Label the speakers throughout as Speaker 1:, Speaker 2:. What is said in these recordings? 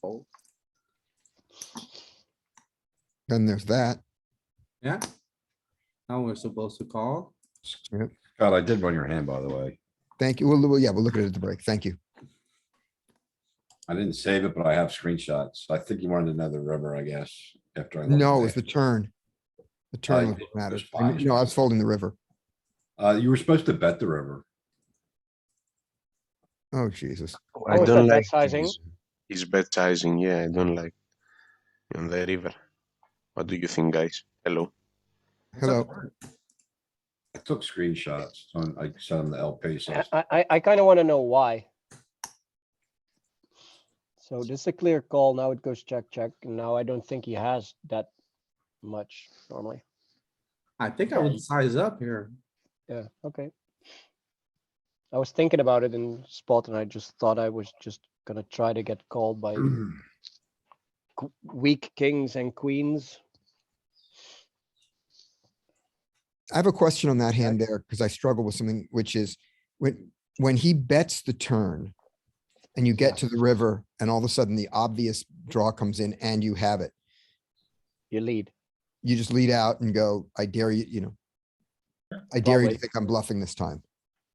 Speaker 1: fold. Then there's that.
Speaker 2: Yeah. Now we're supposed to call.
Speaker 3: God, I did run your hand, by the way.
Speaker 1: Thank you. Well, yeah, we'll look at it at the break. Thank you.
Speaker 3: I didn't save it, but I have screenshots. I think you wanted another river, I guess, after I. looked
Speaker 1: No,
Speaker 3: at
Speaker 1: it's the
Speaker 3: it.
Speaker 1: turn. The
Speaker 2: Oh,
Speaker 1: turn was
Speaker 3: did
Speaker 1: what matters.
Speaker 3: just buy it.
Speaker 1: No, I was folding the river.
Speaker 3: Uh, you were supposed to bet the river.
Speaker 1: Oh, Jesus.
Speaker 4: I
Speaker 5: Oh, is
Speaker 4: don't
Speaker 5: that
Speaker 4: like
Speaker 5: baptizing?
Speaker 4: He's, he's baptizing, yeah, I don't like on the river. What do you think, guys? Hello.
Speaker 1: Hello.
Speaker 3: I took screenshots. on- I sent them to El Paso.
Speaker 5: I, I, I kind of want to know why. So this is a clear call. Now it goes check, check. and Now I don't think he has that much normally.
Speaker 2: I think I would size up here.
Speaker 5: Yeah, okay. I was thinking about it in spot and I just thought I was just gonna try to get called by qu- weak kings and queens.
Speaker 1: I have a question on that hand there because I struggle with something, which is when, when he bets the turn and you get to the river and all of a sudden the obvious draw comes in and you have it,
Speaker 5: You lead.
Speaker 1: you just lead out and go, I dare you, you know, I dare you to
Speaker 5: wait.
Speaker 1: think I'm bluffing this time.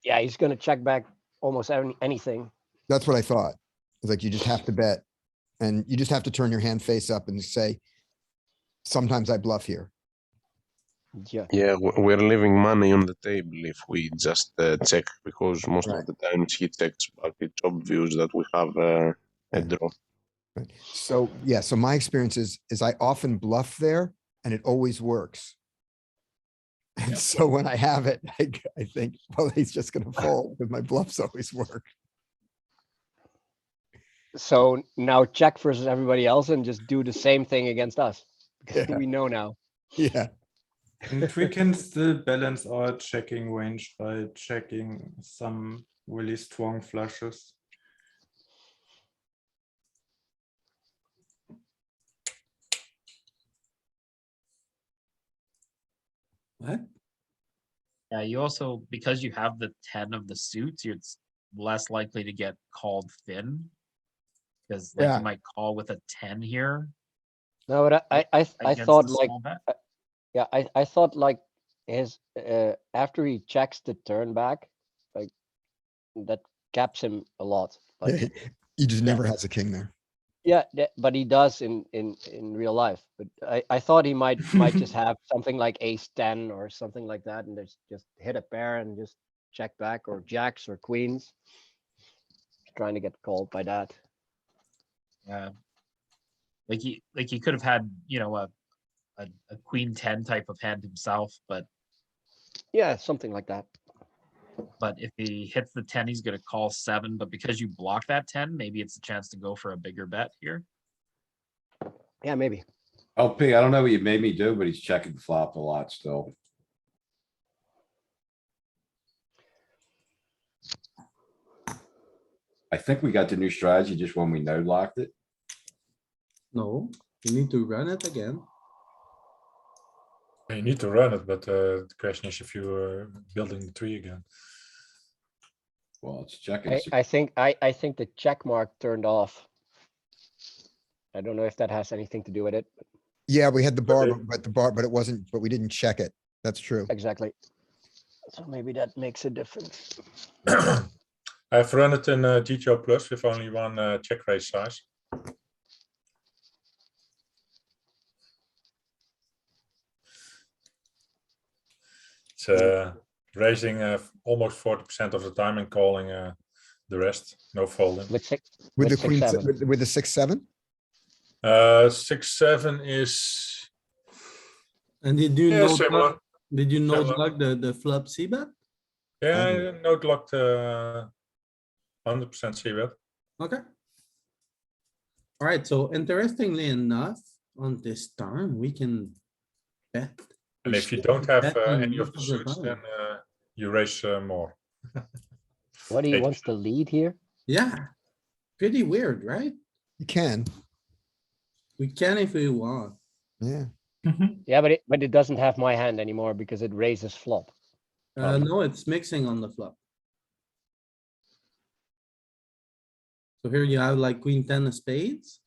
Speaker 5: Yeah, he's gonna check back almost any, anything.
Speaker 1: That's what I thought. It's like you just have to bet and you just have to turn your hand face up and say, sometimes I bluff here.
Speaker 5: Yeah.
Speaker 4: Yeah, w- we're leaving money on the table if we just uh, check because most
Speaker 1: Right.
Speaker 4: of the times he checks, but it's obvious that we have uh,
Speaker 1: Yeah.
Speaker 4: a draw.
Speaker 1: Right. So, yeah, so my experience is, is I often bluff there and it always works. And so when I have it, I, g- I think, well, he's just gonna fold, because my bluffs always work.
Speaker 5: So now check versus everybody else and just do the same thing against us. Because
Speaker 1: Yeah.
Speaker 5: we know now.
Speaker 1: Yeah,
Speaker 6: And we can still balance our checking range by checking some really strong flushes.
Speaker 2: What?
Speaker 7: Yeah, you also, because you have the ten of the suits, you're s- less likely to get called thin. Cause like
Speaker 1: Yeah.
Speaker 7: you might call with a ten here.
Speaker 5: No, but I, I, I- I
Speaker 7: against
Speaker 5: thought
Speaker 7: the
Speaker 5: like,
Speaker 7: small bet.
Speaker 5: yeah, I, I thought like his, uh, after he checks the turn back, like that caps him a lot.
Speaker 1: Yeah,
Speaker 5: Like,
Speaker 1: he- he just never has a king there.
Speaker 5: yeah, that- but he does in, in, in real life. But I, I thought he might, might just have something like ace ten or something like that and just, just hit a pair and just check back or jacks or queens. Trying to get called by that.
Speaker 7: Yeah. Like he, like he could have had, you know, a, a, a queen ten type of hand himself, but,
Speaker 5: Yeah, something like that.
Speaker 7: but if he hits the ten, he's gonna call seven, but because you block that ten, maybe it's a chance to go for a bigger bet here.
Speaker 5: Yeah, maybe.
Speaker 3: LP, I don't know what you made me do, but he's checking flop a lot still. I think we got the new strategy just when we no locked it.
Speaker 2: No, you need to run it again.
Speaker 8: You need to run it, but uh, the question is if you are building the tree again.
Speaker 3: Well, it's checking.
Speaker 5: I,
Speaker 3: It's-
Speaker 5: I think, I, I think the check mark turned off. I don't know if that has anything to do with it.
Speaker 1: Yeah, we had the bar,
Speaker 8: Okay.
Speaker 1: but- but the bar, but it wasn't, but we didn't check it. That's true.
Speaker 5: Exactly. So maybe that makes a difference.
Speaker 8: I've run it in uh, GTO Plus with only one uh, check raise size. It's uh, raising uh, f- almost 40% of the time and calling uh, the rest, no folding.
Speaker 5: With six,
Speaker 1: With
Speaker 5: With
Speaker 1: the
Speaker 5: six,
Speaker 1: queen,
Speaker 5: seven.
Speaker 1: with, with the six, seven?
Speaker 8: Uh, 6 7 is
Speaker 2: And did you
Speaker 8: yeah,
Speaker 2: know,
Speaker 8: similar.
Speaker 2: that- did you know
Speaker 8: Similar.
Speaker 2: like the, the flop C bet?
Speaker 8: Yeah, note locked uh, 100% CBET.
Speaker 2: Okay. Alright, so interestingly enough, on this turn, we can bet.
Speaker 8: And if you
Speaker 2: Shit,
Speaker 8: don't have
Speaker 2: that
Speaker 8: uh,
Speaker 2: one
Speaker 8: any of the
Speaker 2: must have
Speaker 8: suits,
Speaker 2: gone.
Speaker 8: then uh, you raise uh, more.
Speaker 5: what do you
Speaker 8: Eight.
Speaker 5: wants to lead here?
Speaker 2: Yeah, pretty weird, right?
Speaker 1: You can,
Speaker 2: We can if we want.
Speaker 1: yeah.
Speaker 5: Yeah, but it, but it doesn't have my hand anymore because it raises flop.
Speaker 2: Uh, no, it's mixing on the flop. So here you have like queen ten of spades.